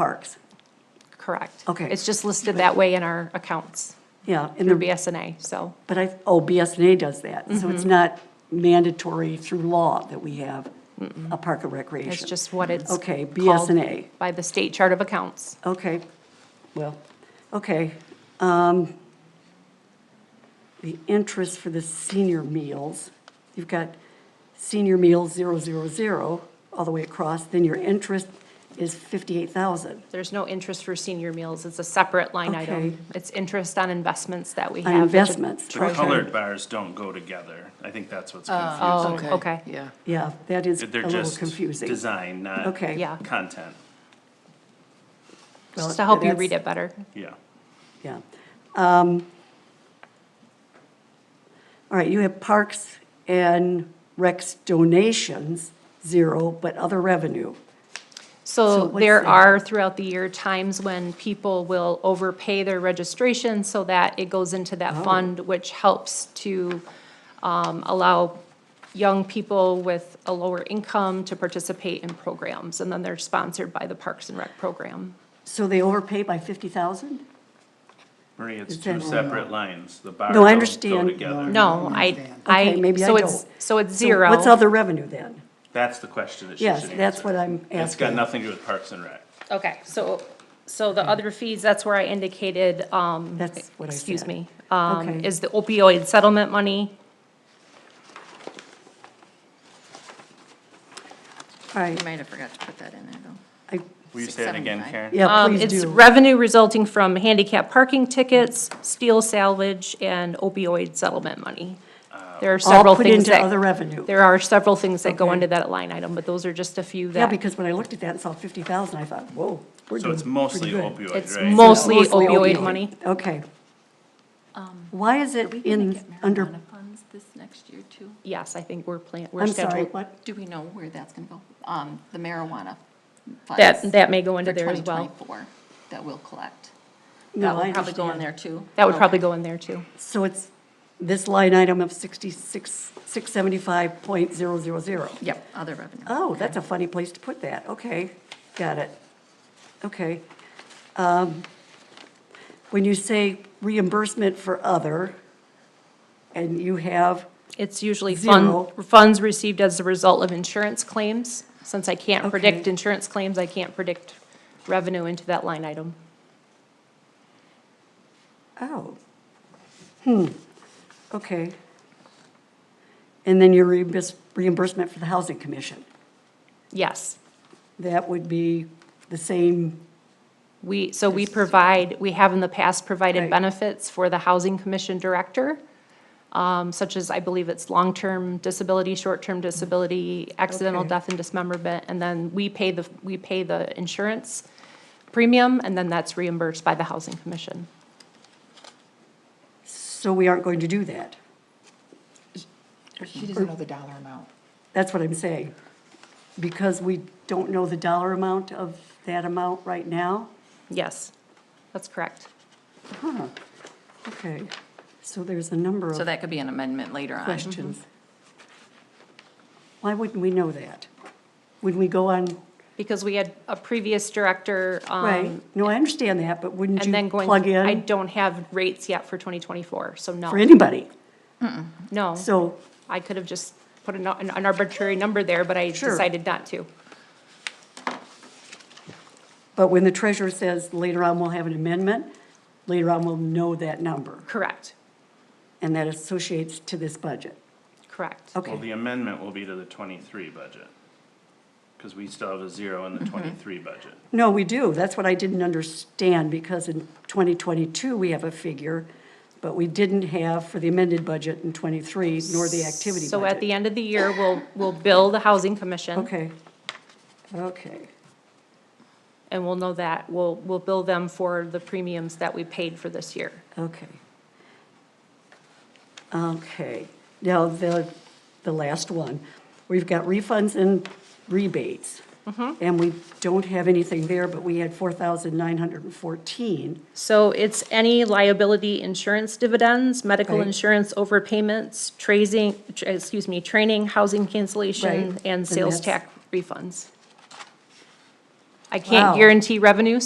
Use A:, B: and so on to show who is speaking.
A: parks.
B: Correct.
A: Okay.
B: It's just listed that way in our accounts
A: Yeah, and
B: through
A: the,
B: BSNA, so,
A: but I, oh, BSNA does that, so
B: Mm-hmm.
A: it's not mandatory through law that we have a park and recreation.
B: it's just what it's.
A: Okay,
B: called
A: BSNA.
B: By the state chart of accounts.
A: Okay, well, okay. Um, The interest for the senior meals, you've got senior meals zero, zero, zero, all the way across, then your interest is fifty-eight thousand.
B: There's no interest for senior meals, it's a separate line
A: Okay.
B: item. It's interest on investments that we
A: On
B: have. with the
A: investments,
B: treasurer.
A: okay.
C: Colored bars don't go together. I think that's what's
B: Oh,
C: confusing.
B: okay,
D: Yeah.
A: Yeah, that is a
C: They're
A: little
C: just
A: confusing.
C: design, not
A: Okay.
B: Yeah.
C: content.
A: Well,
B: just to help you
A: that's-
B: read it better.
C: Yeah.
A: Yeah. Um, All right, you have parks and recs donations, zero, but other revenue. So
B: So
A: what's
B: there
A: the-
B: are throughout the year times when people will overpay their registration so that it goes into
A: Oh.
B: that fund, which helps to um, allow young people with a lower income to participate in programs. And then they're sponsored by the Parks and Rec program.
A: So they overpay by 50,000?
C: Marie, it's
A: It's
C: two
A: in-
C: separate lines. The bars
A: No, I
C: don't go
A: understand.
C: together.
B: No, I,
D: understand.
B: I.
A: Okay, maybe I
B: so it's-
A: don't.
B: So it's
A: So
B: zero.
A: What's other revenue then?
C: That's the question that she should
A: Yes,
C: answer.
A: that's what I'm
C: It's got
A: asking.
C: nothing to do with Parks and Rec.
B: Okay, so, so the other fees, that's where I indicated, um,
A: That's what I
B: excuse
A: said.
B: me, um,
A: Okay.
B: is the opioid settlement money.
A: All
D: You
A: right,
D: might have forgot to put that in there, though.
A: I-
C: Will you say that again,
D: 675.
C: Karen?
A: yeah,
B: Um,
A: please
B: it's
A: do.
B: revenue resulting from handicap parking tickets, steel salvage, and opioid settlement money. There are
A: All
B: several
A: put
B: things
A: into
B: that.
A: other revenue.
B: There are several things that go
A: Okay.
B: into that line item, but those are just a few
A: Yeah,
B: that,
A: because when I looked at that and saw 50,000, I thought, whoa, we're
C: So
A: doing
C: it's mostly
A: pretty good.
C: opioid, right?
B: it's mostly
A: Mostly
B: opioid money.
A: Okay. Why is it in, under,
D: funds this next year, too?
B: Yes, I think we're plan, we're
A: I'm sorry,
B: scheduled.
A: what?
D: Do we know where that's gonna go? Um, the marijuana funds.
B: That, that may go into
D: for
B: there as well.
D: 2024 That we'll collect.
A: No,
D: That
A: I
D: will probably go in
A: understand.
D: there, too. Oh.
B: That would probably
D: Okay.
B: go in there too.
A: So it's this line item of 66, 675.000.
D: Yep, other revenue.
A: Oh, that's a funny place to put that. Okay, got it. Okay. Um, When you say reimbursement for other, and you have,
B: It's usually fund,
A: Zero.
B: funds received as a result of insurance claims. Since I can't predict
A: Okay.
B: insurance claims, I can't predict revenue into that line item.
A: oh, hmm, okay. And then your reimburs- reimbursement for the Housing Commission.
B: Yes.
A: That would be the same,
B: We, so we provide, we have in the past provided
A: Right.
B: benefits for the Housing Commission Director, um, such as, I believe it's long-term disability, short-term disability, accidental
A: Okay.
B: death and dismemberment, and then we pay the, we pay the insurance premium, and then that's reimbursed by the Housing Commission.
A: so we aren't going to do that.
E: She doesn't know the dollar amount.
A: That's what I'm saying. Because we don't know the dollar amount of that amount right now?
B: Yes, that's correct.
A: Okay, so there's a number
D: So
A: of
D: that could be an amendment later on.
A: questions. Why wouldn't we know that? Would we go on,
B: Because we had a previous director,
A: right,
B: um,
A: no, I understand that, but wouldn't
B: and
A: you
B: then going,
A: plug
B: I
A: in
B: don't have rates yet for twenty twenty-four, so
A: for
B: no,
A: anybody?
B: no.
A: So,
B: I could have just put an, an arbitrary number there, but I
A: Sure.
B: decided not to.
A: but when the treasurer says later on we'll have an amendment, later on we'll know that number,
B: Correct,
A: and that associates to this budget.
B: correct.
C: Well,
A: Okay,
C: the amendment will be to the twenty-three budget. Cause we still have a zero in the
A: Mm-hmm.
C: twenty-three budget.
A: no, we do, that's what I didn't understand, because in 2022, we have a figure, but we didn't have for the amended budget in '23, nor the activity budget.
B: So at the end of the year, we'll, we'll bill the housing commission,
A: Okay, okay,
B: and we'll know that, we'll, we'll bill them for the premiums that we paid for this year.
A: okay. Okay, now the, the last one, we've got refunds and rebates.
B: Mm-hmm.
A: And we don't have anything there, but we had four thousand nine hundred and fourteen.
B: So it's any liability insurance dividends, medical
A: Right.
B: insurance overpayments, tracing, tr- excuse me, training, housing cancellation,
A: Right,
B: and
A: and
B: sales
A: that's-
B: tax refunds. I can't
A: Wow.
B: guarantee revenue,